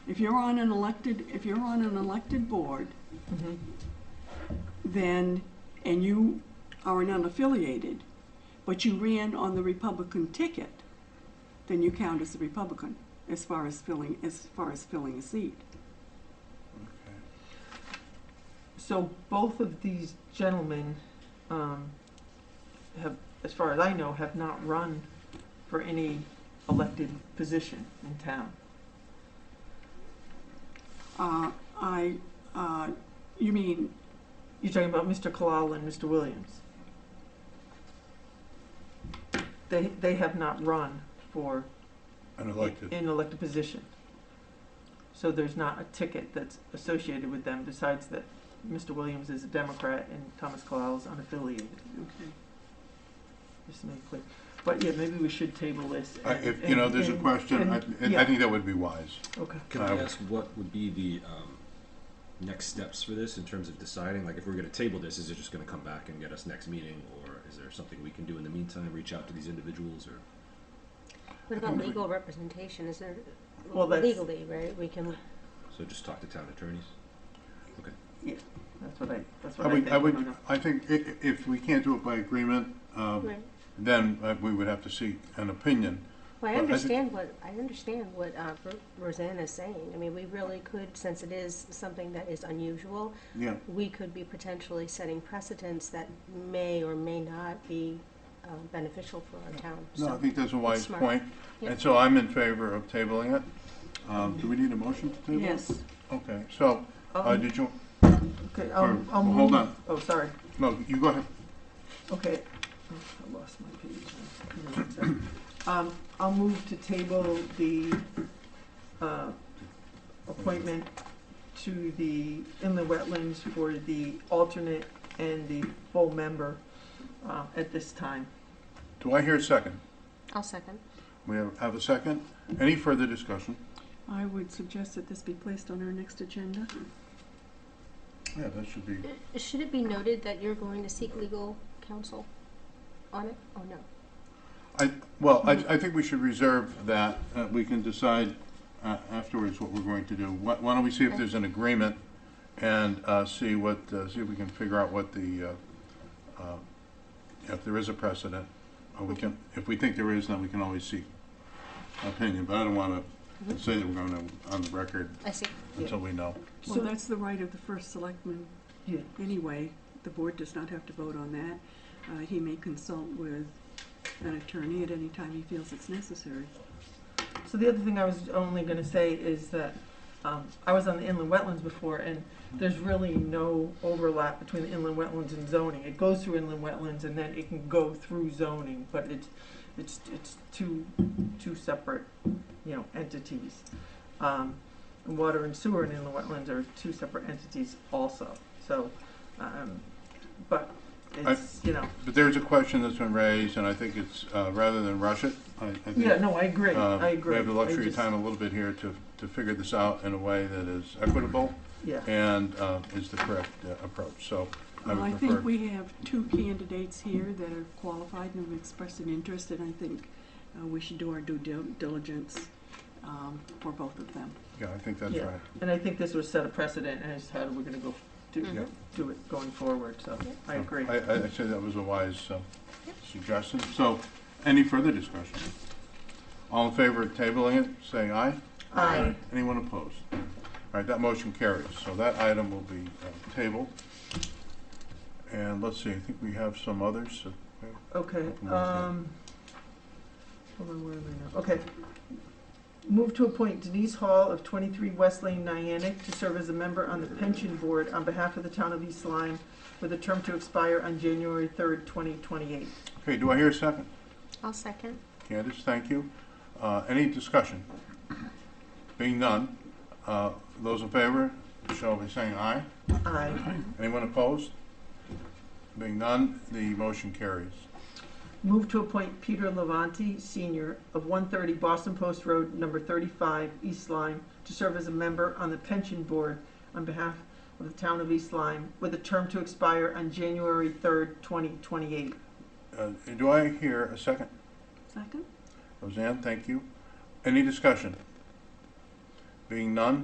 if you're on an elected, if you're on an elected board, Mm-hmm. then, and you are an unaffiliated, but you ran on the Republican ticket, then you count as a Republican as far as filling, as far as filling a seat. Okay. So both of these gentlemen, um, have, as far as I know, have not run for any elected position in town. Uh, I, uh, you mean, You're talking about Mr. Kalal and Mr. Williams. They, they have not run for Unelected. an elected position. So there's not a ticket that's associated with them besides that Mr. Williams is a Democrat and Thomas Kalal is unaffiliated, okay. just to make clear. But yeah, maybe we should table this. I- and- Uh, If, you know, there's a and- question, I, and- I yeah, think that would be wise. Okay. Can I Um, ask what would be the um, next steps for this in terms of deciding? Like, if we're going to table this, is it just going to come back and get us next meeting, or is there something we can do in the meantime? Reach out to these individuals, or What about legal representation? Is there Well, that's- legally, right? We can so just talk to town attorneys. That's what I, that's I what I would, think. I I don't would, know. I think i- i- if we can't do it by agreement, um, Right. then uh, we would have to seek an opinion. Well, I Well, I think- understand what, I understand what uh, Ro- Roseanne is saying. I mean, we really could, since it is something that is unusual, Yeah, we could be potentially setting precedents that may or may not be uh, beneficial for our town. no, I So- think that's a wise smart. point. Yeah. And so I'm in favor of tabling it. Um, do we need a motion to table? it? Yes, Okay, so, uh, Um, did you, Okay, um, or- I'll well, hold move- on. Oh, sorry. no, you go ahead. Okay, Oh, I lost my page. Hold on a second. Um, I'll move to table the, uh, appointment to the inland wetlands for the alternate and the full member, uh, at this time. Do I hear a second? I'll second. We have, have a second? Any further discussion? I would suggest that this be placed on our next agenda. Yeah, that should be, Uh, Should it be noted that you're going to seek legal counsel on it? Oh, no. I, well, I, I think we should reserve that. Uh, we can decide, uh, afterwards what we're going to do. Why, why don't we see if there's an agreement and, uh, see what, uh, see if we can figure out what the, uh, uh, if there is a precedent. Or we can, if we think there is, then we can always seek opinion, but I don't wanna say that we're gonna, on the record I see. until we know. Well, So- that's the right of the first selectman Yeah, anyway. The board does not have to vote on that. Uh, he may consult with an attorney at any time he feels it's necessary. So the other thing I was only gonna say is that, um, I was on the inland wetlands before, and there's really no overlap between the inland wetlands and zoning. It goes through inland wetlands and then it can go through zoning, but it's, it's, it's two, two separate, you know, entities. Um, and water and sewer and inland wetlands are two separate entities also, so, um, but I- it's, you know, But there's a question that's been raised, and I think it's, uh, rather than rush it, I, I think. yeah, no, I agree, Uh, I agree. We have the I luxury of just- time a little bit here to, to figure this out in a way that is equitable Yeah. and uh, is the correct uh, approach, so I Well, I would think prefer. we have two candidates here that are qualified and have expressed an interest, and I think uh, we should do our due dil- diligence um, for both of them. Yeah, I think that's Yeah. right. And I think this would set a precedent as how we're gonna go do, Yeah. do it going forward, so I agree. I, I I'd say that was a wise uh, Yep. suggestion. So, any further discussion? All in favor of tabling it, say aye. Aye. Anyone opposed? All right, that motion carries, so that item will be uh, tabled. And let's see, I think we have some others. uh, Okay, Open one's hand. um, hold on, where am I now? Okay. Move to appoint Denise Hall of twenty-three West Lane, Niantic, to serve as a member on the pension board on behalf of the town of East Lyme, with a term to expire on January third, twenty twenty-eight. Okay, do I hear a second? I'll second. Candace, thank you. Uh, Any discussion? Being none, uh, those in favor shall be saying aye. Aye. Anyone opposed? Being none, the motion carries. Move to appoint Peter Levanti, Senior, of 130 Boston Post Road, number 35, East Lyme, to serve as a member on the Pension Board on behalf of the town of East Lyme, with a term to expire on January 3rd, 2028. Uh, Do I hear a second? Second? Roseanne, thank you. Any discussion? Being none,